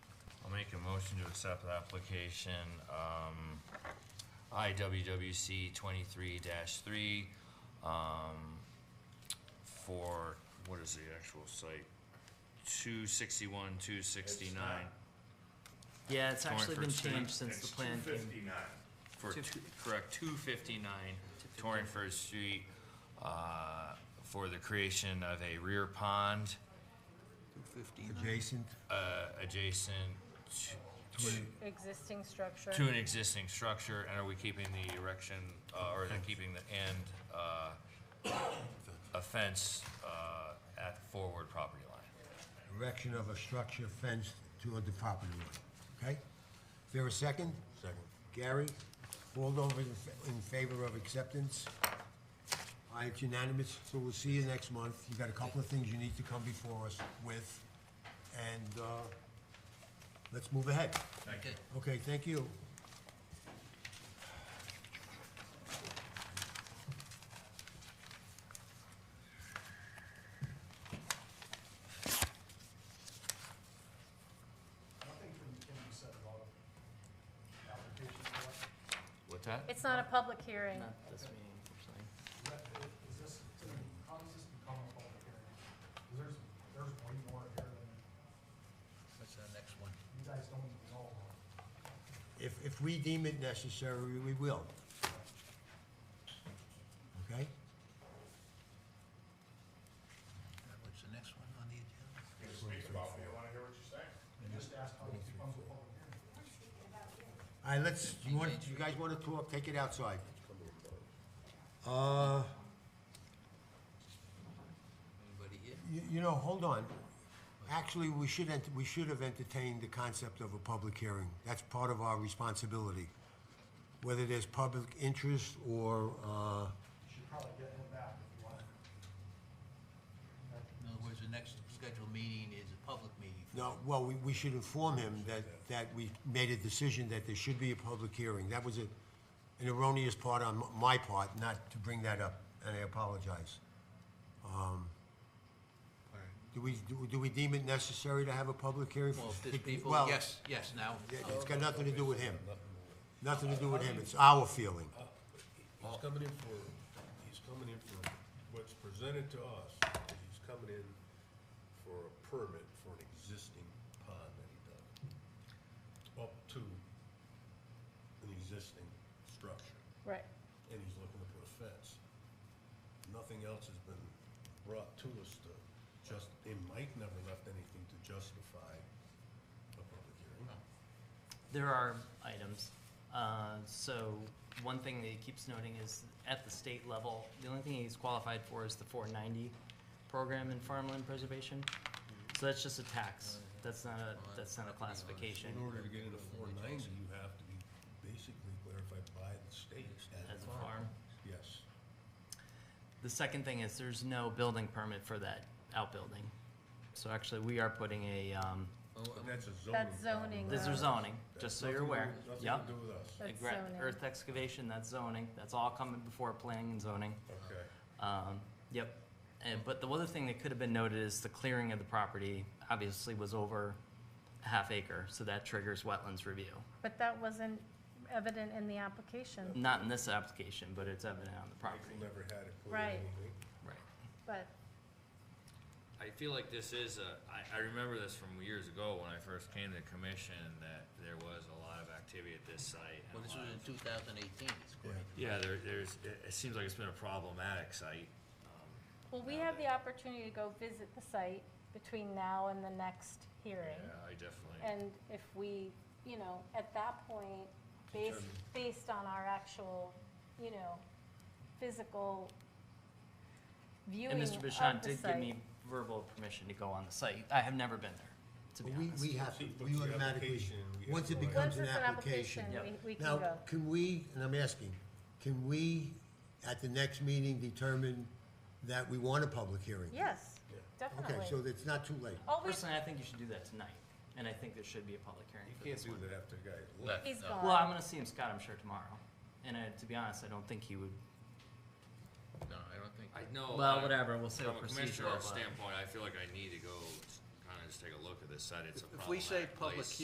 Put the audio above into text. make a motion to accept the application, um, IWWC twenty-three three, um, for, what is the actual site? Two sixty-one, two sixty-nine, Yeah, it's Going actually for been street- changed since the plan It's came. two fifty-nine. for, Two- two- correct, two fifty-nine Torrent First Street, uh, for the creation of a rear pond, adjacent uh, adjacent to- to a Existing structure. To an existing structure, and are we keeping the erection, uh, or are they keeping the end, uh, a fence, uh, at forward property line? erection of a structure fenced to a property line, okay? Is there a second? Second. Gary, all those in fa- in favor of acceptance? Aye, it's unanimous, so we'll see you next month. You've got a couple of things you need to come before us with, and, uh, let's move ahead. Thank you. Okay, thank you. Nothing from, can be said about application for that. What's that? It's not a public hearing. Not this meeting, unfortunately. Is that- Is this, how does this become a public hearing? 'Cause there's, there's way more here than What's the next one? you guys don't even know about. If, if we deem it necessary, we will. Okay? Uh, What's the next one on the agenda? Speak about it, you wanna hear what you're saying? You just asked how this becomes a public hearing. All right, let's, you want, you guys wanna talk, take it outside. Uh, Anybody here? you, you know, hold on. Actually, we should, ent- we should have entertained the concept of a public hearing. That's part of our responsibility. Whether there's public interest or, uh, You should probably get him back if you want. Okay. In other words, the next scheduled meeting is a public meeting. no, well, we, we should inform him that, that we made a decision that there should be a public hearing. That was a, an erroneous part on m- my part, not to bring that up, and I apologize. Um, Do we, do- do we deem it necessary to have a public hearing? Well, if there's people, Well, yes, yes, now. Oh, it- It's got nothing to do with him. Nothing to do with him, it's our feeling. He's coming in for, he's coming in for what's presented to us, is he's coming in for a permit for an existing pond that he dug. Up to an existing structure, Right. and he's looking to put a fence. Nothing else has been brought to us to just, and Mike never left anything to justify a public hearing. There are items. Uh, so one thing that he keeps noting is at the state level, the only thing he's qualified for is the 490 program in farmland preservation. So that's just a tax. That's not a that's not a classification. In order to get into four ninety, you have to be basically clarified by the state as As a a farm. Yes. The second thing is there's no building permit for that outbuilding. So actually, we are putting a um, But that's a zoning. That's zoning, this is though. zoning, just so you're aware. Nothing Yep. to do with us. That's Egra- zoning. Earth excavation, that's zoning, that's all coming before planning and zoning. Okay. Um, yep. And, but the other thing that could have been noted is the clearing of the property obviously was over a half acre, so that triggers wetlands review. But that wasn't evident in the application, Not in this application, but it's evident on the property. Michael never had it put in Right. anything. Right. but I feel like this is a, I, I remember this from years ago when I first came to the commission, that there was a lot of activity at this site. and Well, a this lot was of- in two thousand eighteen, it's quite. Yeah, there, there's, it, it seems like it's been a problematic site. Well, we have the opportunity to go visit the site between now and the next Yeah, hearing. I definitely, And if we, you know, at that point, based, based on our actual, you know, physical viewing of And the Mr. Bashan site. did give me verbal permission to go on the site. I have never been there, to be But We, honest. we have, to- See, we puts the automatically, application, we have once it to- becomes Once an it's an application. application, we, we can go. Now, can we, and I'm asking, can we, at the next meeting, determine that we want a public hearing? Yes, definitely. Okay, so it's not too late. All we, Personally, I think you should do that tonight, and I think there should be a public hearing You for can't this do one. that after the guy left. he's No. gone. Well, I'm gonna see him, Scott, I'm sure tomorrow, and I, to be honest, I don't think he would, No, I don't think. I know. well, I- whatever, we'll say From a procedural, commissioner but. standpoint, I feel like I need to go kind of just take a look at this site. It's a If we say problematic public place.